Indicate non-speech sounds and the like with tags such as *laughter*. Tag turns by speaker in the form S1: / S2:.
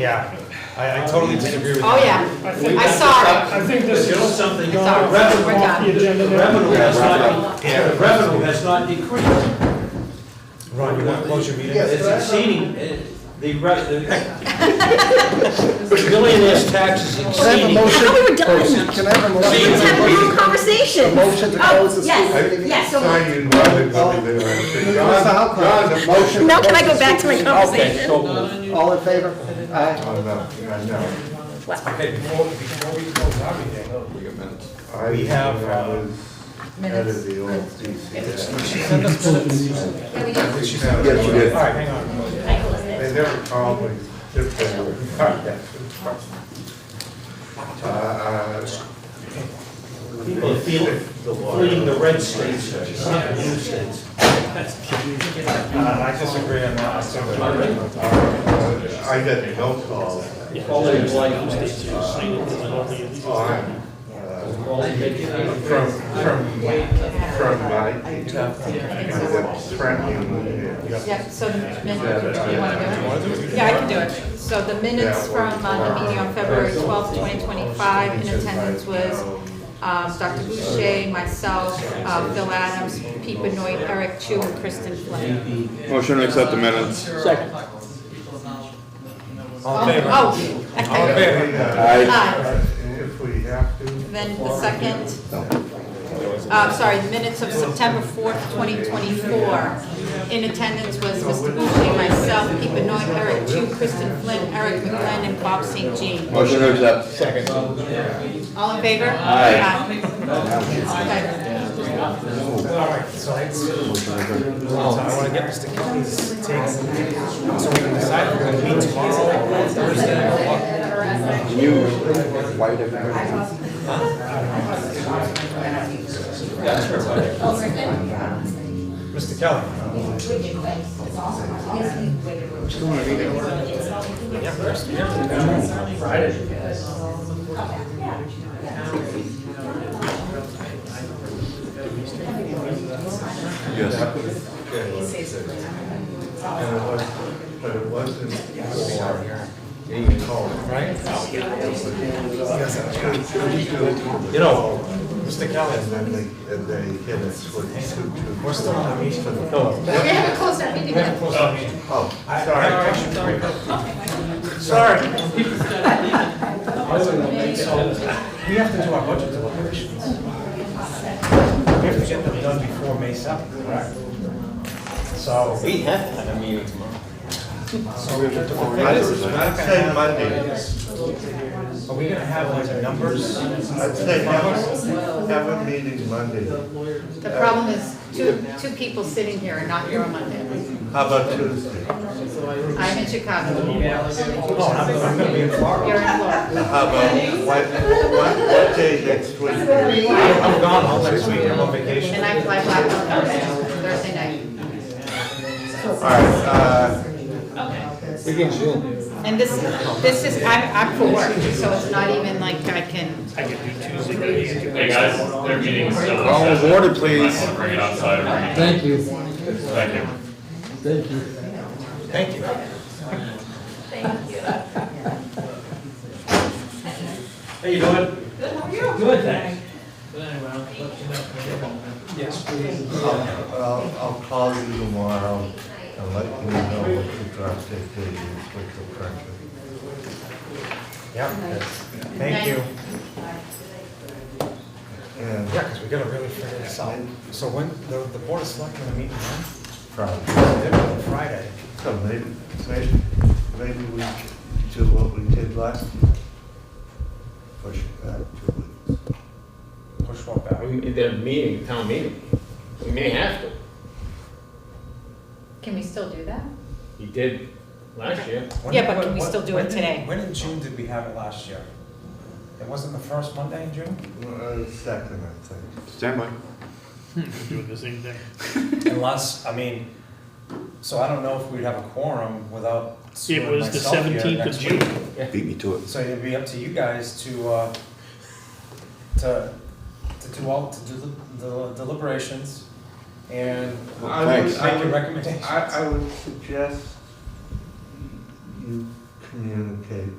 S1: Yeah, I, I totally disagree with
S2: Oh,
S1: that.
S2: yeah.
S3: think-
S2: I saw
S3: I think this
S4: You know
S3: is
S4: something,
S3: gone
S2: Sorry,
S3: off
S2: we're done.
S3: the agenda
S4: the
S3: now.
S4: revenue has not,
S1: Yeah.
S4: the revenue has not decreased.
S1: Ron, you want to close your meeting?
S4: It's exceeding, uh, the, re- the the *laughs* millionaire's tax is
S5: Can I have a
S4: exceeding.
S5: motion?
S6: I thought we were done.
S5: Can I have a
S6: We just have a
S5: motion?
S6: real conversation.
S5: A motion to close the school
S6: Oh,
S5: meeting?
S6: yes, yes, so
S7: Sign in rather than coming there and
S5: John,
S7: saying,
S5: John, the motion. to
S6: Now can I
S5: close
S6: go
S5: the
S6: back to my
S5: school
S4: Okay,
S6: conversation?
S4: so moved.
S5: meeting? All in favor? Aye.
S7: Oh, no, no, no.
S6: Wow.
S1: Okay, before, before we close our meeting,
S7: I
S1: We have, uh,
S7: was head of the old DC.
S1: send us minutes.
S7: Yes, you did.
S1: All right, hang on.
S7: They never called me, just they were. Uh,
S4: People are feeling, fleeing the red states, not the blue states.
S1: Uh, I disagree on that, so.
S7: I got no calls
S4: All they like is to sign it, and all they-
S7: on, uh,
S4: all they make
S7: from,
S4: it.
S7: from, from my, that's threatening.
S2: Yeah, so the minutes, do you want to do it? Yeah, I can do it. So the minutes from uh, the meeting on February 12th, 2025, in attendance was um, Dr. Boucher, myself, uh, Phil Adams, Pete Benoit, Eric Chu, and Kristen Flynn.
S8: Motion to accept the minutes.
S3: Second.
S1: All in favor?
S2: Oh,
S1: All in favor?
S2: aye.
S7: If we have to.
S2: Then the second, uh, sorry, the minutes of September 4th, 2024. In attendance was Mr. Boucher, myself, Pete Benoit, Eric Chu, Kristen Flynn, Eric McLean, and Bob St. Jean.
S8: Motion to accept.
S2: All in favor?
S8: Aye.
S2: Aye. Okay.
S1: All right, so I, so I want to get this to Kelly's takes, so we can decide if we're gonna meet tomorrow or Thursday or what.
S5: You, white American.
S1: Mr. Kelly?
S7: And it was, but it wasn't for being called.
S1: Right?
S7: You
S1: You know, Mr. Kelly,
S7: And then they, and they hit us with two, two.
S1: we're still on a meeting.
S7: Oh,
S2: We haven't closed our meeting yet.
S7: oh,
S1: I- I-
S7: sorry.
S1: Sorry. We have to do our budget deliberations. We have to get them done before May seventh, correct? So. We have to have a meeting tomorrow. So.
S7: I'd say Monday.
S1: Are we gonna have like numbers?
S7: I'd say have, a- have a meeting Monday.
S2: The problem is, two, two people sitting here and not here on Monday.
S7: How about Tuesday?
S2: I'm in Chicago.
S1: No, I'm, I'm gonna be in
S2: You're
S1: Florida.
S2: in Florida.
S7: How about what, what, what day next week?
S1: I'm gone all next week, I'm on vacation.
S2: And I fly back on Thursday, Thursday night.
S7: All right, uh,
S2: And this, this is, I'm, I'm for work, so it's not even like I can,
S9: Hey guys, their meeting's still on.
S8: Call of order, please.
S9: I want to bring it outside or bring it. Thank you. Thank you.
S1: Thank you.
S4: How you doing?
S3: Good, thanks.
S7: I'll, I'll call you tomorrow and let you know what the draft date is with the pressure.
S1: Yeah, thank you.
S7: And
S1: Yeah, because we gotta really figure this out. So when, the, the board of selectmen are meeting on
S7: probably,
S1: Friday.
S7: so maybe, maybe, maybe we do what we did last year. Push it back two weeks.
S1: Push one back.
S10: They're meeting, town meeting. We may have to.
S2: can we still do that?
S10: He did last year.
S1: When-
S2: Yeah, but
S1: when-
S2: can we
S1: when-
S2: still do
S1: when
S2: it
S1: in-
S2: today?
S1: When in June did we have it last year? It wasn't the first Monday in June?
S7: Uh, Second, I think.
S8: Stand by.
S9: Doing the same thing.
S1: Unless, I mean, so I don't know if we'd have a quorum without.
S9: It was the
S1: myself here
S9: 17th of
S1: next
S9: June.
S1: week.
S8: Beat me to it.
S1: So it'd be up to you guys to, uh, to, to do all, to do the- the deliberations and
S7: I would-
S1: make
S7: I
S1: your
S7: would-
S1: recommendations.
S7: I, I would suggest you Yeah, okay.